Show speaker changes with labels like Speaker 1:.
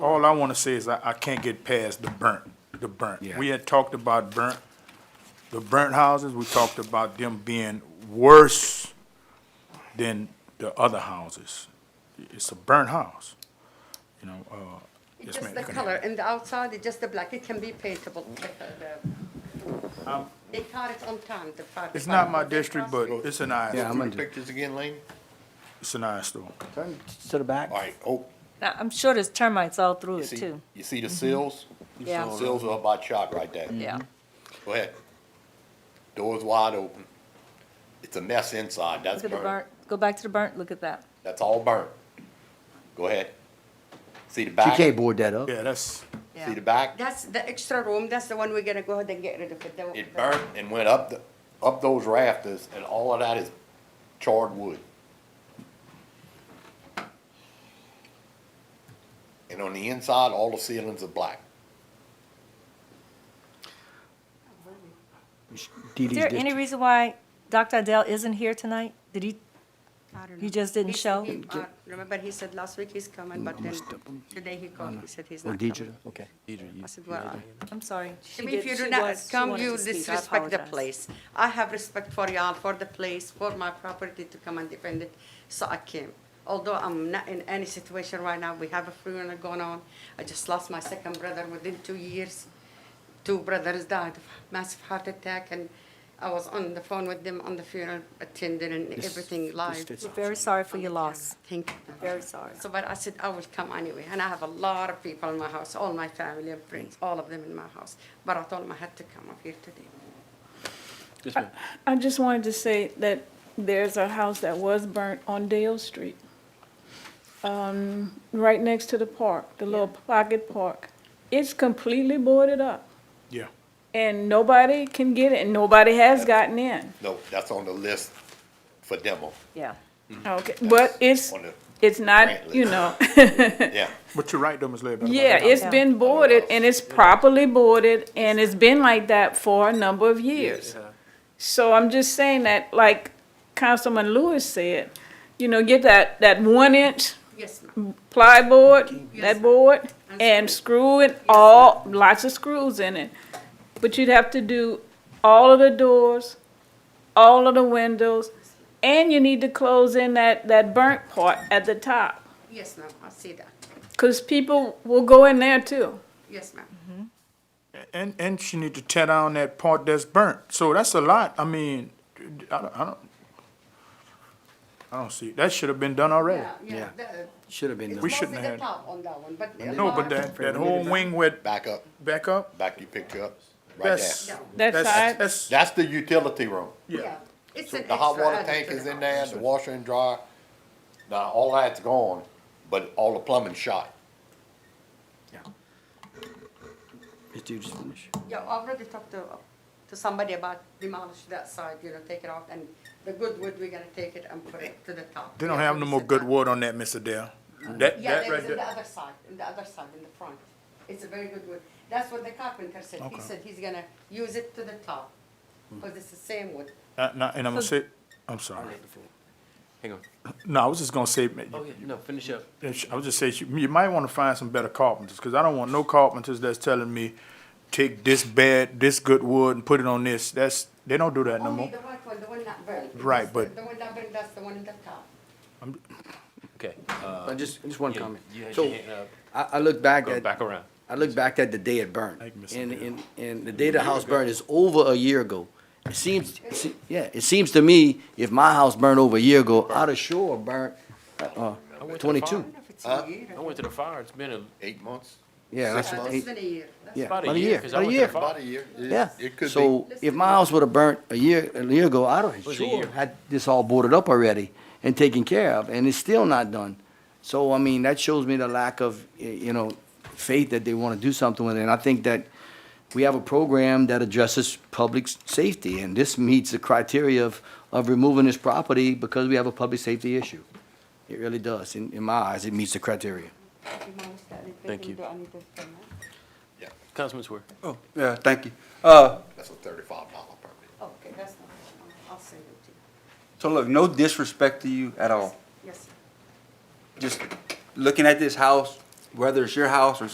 Speaker 1: all I wanna say is I, I can't get past the burnt, the burnt.
Speaker 2: Yeah.
Speaker 1: We had talked about burnt, the burnt houses, we talked about them being worse than the other houses. It's a burnt house, you know, uh. yes,
Speaker 3: Just
Speaker 1: ma'am,
Speaker 3: the
Speaker 1: you can
Speaker 3: color,
Speaker 1: have it.
Speaker 3: and the outside is just the black, it can be paintable. like, uh, the- They cut it on time, the fire
Speaker 1: Um, It's not my
Speaker 3: department. They
Speaker 1: district,
Speaker 3: cross
Speaker 1: but
Speaker 3: it.
Speaker 1: it's an eye,
Speaker 2: Yeah, I'm
Speaker 1: store.
Speaker 2: a-
Speaker 4: Through the pictures again, Lane?
Speaker 1: it's an eye store.
Speaker 2: Turn to the back.
Speaker 4: All right, oh,
Speaker 5: Now, I'm sure there's termites all through
Speaker 4: you
Speaker 5: it
Speaker 4: see,
Speaker 5: too.
Speaker 4: you see the seals?
Speaker 5: Yeah.
Speaker 4: The Mm-hmm. Seals are up by chalk right there.
Speaker 5: Yeah,
Speaker 4: Go ahead. Doors wide open. It's a mess inside, that's
Speaker 5: look at
Speaker 4: burnt.
Speaker 5: the burnt, go back to the burnt, look at that.
Speaker 4: That's all burnt. Go ahead. See the back?
Speaker 2: TK
Speaker 4: See
Speaker 2: board that up.
Speaker 1: Yeah, that's,
Speaker 5: Yeah.
Speaker 4: the back?
Speaker 3: That's the extra room, that's the one we're gonna go ahead and get rid of it. the-
Speaker 4: It burnt and went up, the up those rafters, and all of that is charred wood. And on the inside, all the ceilings are black.
Speaker 2: Dee
Speaker 5: Is
Speaker 2: Dee's
Speaker 5: there
Speaker 2: district.
Speaker 5: any reason why Dr. Adele isn't here tonight? Did he,
Speaker 3: I don't know.
Speaker 5: You just didn't
Speaker 3: He-
Speaker 5: show?
Speaker 3: he- uh, Remember, he said last week he's
Speaker 1: Mm,
Speaker 3: coming, but then today he called, he said he's
Speaker 2: Oh,
Speaker 3: not
Speaker 2: Deidre,
Speaker 3: coming.
Speaker 2: okay.
Speaker 3: I said, well,
Speaker 5: I'm sorry. she
Speaker 3: I mean, if
Speaker 5: did-
Speaker 3: you do
Speaker 5: she
Speaker 3: not
Speaker 5: was- she
Speaker 3: come,
Speaker 5: wanted
Speaker 3: you
Speaker 5: to speak. I
Speaker 3: disrespect the
Speaker 5: apologize.
Speaker 3: place. I have respect for y'all, for the place, for my property to come and defend it, so I came. Although I'm not in any situation right now, we have a funeral going on. I just lost my second brother within two years. Two brothers died of massive heart attack, and I was on the phone with them on the funeral, attending and everything live.
Speaker 2: this-
Speaker 5: We're very sorry for your loss.
Speaker 3: Thank you.
Speaker 5: Very sorry.
Speaker 3: So, but I said, I will come anyway, and I have a lot of people in my house, all my family and friends, all of them in my house. But I told them I had to come up here today.
Speaker 6: I just wanted to say that there's a house that was burnt on Dale Street, um, right next to the park, the little pocket park. It's completely boarded up,
Speaker 1: yeah.
Speaker 6: and nobody can get it, and nobody has gotten in.
Speaker 4: No, that's on the list for demo.
Speaker 5: Yeah.
Speaker 6: Okay, but it's,
Speaker 4: On the-
Speaker 6: it's
Speaker 4: Grant
Speaker 6: not,
Speaker 4: list.
Speaker 6: you know,
Speaker 4: Yeah,
Speaker 1: But you're right though, Ms. Ledbetter. about
Speaker 6: yeah,
Speaker 1: that.
Speaker 6: it's
Speaker 5: Yeah.
Speaker 6: been boarded, and it's properly boarded, and it's been like that for a number of years. So I'm just saying that, like Councilman Lewis said, you know, get that, that one inch
Speaker 3: Yes, ma'am.
Speaker 6: plyboard,
Speaker 3: Yes.
Speaker 6: that board,
Speaker 3: And
Speaker 6: and screw it all, lots of screws in it. But you'd have to do all of the doors, all of the windows, and you need to close in that, that burnt part at the top.
Speaker 3: Yes, ma'am, I see that.
Speaker 6: Cause people will go in there too.
Speaker 3: Yes, ma'am.
Speaker 1: And, and she need to tear down that part that's burnt. So that's a lot. I mean, I don't, I don't, I don't see, that should have been done already.
Speaker 3: Yeah, yeah. the-
Speaker 2: Should have been
Speaker 3: It's
Speaker 2: done.
Speaker 1: We shouldn't
Speaker 3: mostly
Speaker 1: have
Speaker 3: the top on that one, but. the
Speaker 1: No, but
Speaker 3: bottom-
Speaker 1: that, that whole wing went
Speaker 4: back up,
Speaker 1: back up,
Speaker 4: back your picture up, right
Speaker 1: that's.
Speaker 4: there.
Speaker 6: That
Speaker 1: that's-
Speaker 6: side?
Speaker 1: That's,
Speaker 4: That's the utility room.
Speaker 1: yeah.
Speaker 3: It's
Speaker 4: So
Speaker 3: an
Speaker 4: the hot
Speaker 3: extra
Speaker 4: water
Speaker 3: added
Speaker 4: tank
Speaker 3: to
Speaker 4: is
Speaker 3: the
Speaker 4: in
Speaker 3: house.
Speaker 4: there, the washer and dryer. Now, all that's gone, but all the plumbing shot.
Speaker 2: This dude just finished.
Speaker 3: Yeah, I already talked to, to somebody about demolish that side, you know, take it off, and the good wood, we're gonna take it and put it to the top.
Speaker 1: They don't
Speaker 3: Yeah,
Speaker 1: have
Speaker 3: we
Speaker 1: no more
Speaker 3: said
Speaker 1: good
Speaker 3: that.
Speaker 1: wood on that, Mr. Dale. That,
Speaker 3: Yeah,
Speaker 1: that right
Speaker 3: there is in the
Speaker 1: there.
Speaker 3: other side, in the other side, in the front. It's a very good wood. That's what the carpenter said. He
Speaker 1: Okay.
Speaker 3: said he's gonna use it to the top, because it's the same wood.
Speaker 1: Uh, nah, And I'm gonna say, I'm sorry.
Speaker 7: Hang on.
Speaker 1: No, I was just gonna say,
Speaker 7: Oh, yeah. No, finish up.
Speaker 1: I was just saying, you- you might wanna find some better carpenters, cause I don't want no carpenters that's telling me, take this bad, this good wood and put it on this. That's, they don't do that no
Speaker 3: Only
Speaker 1: more.
Speaker 3: the right one, the one not burned.
Speaker 1: Right,
Speaker 3: That's-
Speaker 1: but-
Speaker 3: The one not burned, that's the one in the top.
Speaker 7: Okay. Uh,
Speaker 2: Uh, just, just one
Speaker 7: you-
Speaker 2: comment.
Speaker 7: you had
Speaker 2: So,
Speaker 7: your hand up.
Speaker 2: I, I look back
Speaker 7: Go
Speaker 2: at.
Speaker 7: back around.
Speaker 2: I look back at the day it burned,
Speaker 1: Thank you, Mr.
Speaker 2: and,
Speaker 1: Mayor.
Speaker 2: and, and the day the house burned is over a year ago. It seems, it se- yeah, it seems to me, if my house burned over a year ago, I'd have sure burned, uh,
Speaker 7: I went to the
Speaker 2: twenty-two.
Speaker 3: I don't know if it's
Speaker 4: Huh?
Speaker 3: a year.
Speaker 7: I went to the fire. It's been a,
Speaker 4: Eight months?
Speaker 2: Yeah, that's,
Speaker 3: Uh, It's
Speaker 2: eight-
Speaker 3: been a year. That's
Speaker 2: yeah,
Speaker 7: about
Speaker 2: about a year,
Speaker 7: 'cause I
Speaker 2: about a
Speaker 7: went to the
Speaker 2: year,
Speaker 7: fire-
Speaker 4: About a year. It-
Speaker 2: yeah.
Speaker 4: It could be.
Speaker 2: So if my house would have burnt a year, a year ago, I'd have
Speaker 7: was a
Speaker 2: sure
Speaker 7: year.
Speaker 2: had this all boarded up already and taken care of, and it's still not done. So, I mean, that shows me the lack of, y- you know, faith that they want to do something with it, and I think that we have a program that addresses public s- safety, and this meets the criteria of, of removing this property because we have a public safety issue. It really does, in, in my eyes, it meets the criteria.
Speaker 7: Thank you.
Speaker 3: Do I need to come out?
Speaker 4: Yeah,
Speaker 7: Councilman Swear.
Speaker 8: Oh, yeah, thank you. Uh,
Speaker 4: that's a thirty-five dollar permit.
Speaker 3: Okay, that's not, I'll send it to you.
Speaker 8: so look, no disrespect to you at all.
Speaker 3: Yes, sir.
Speaker 8: Just looking at this house, whether it's your house or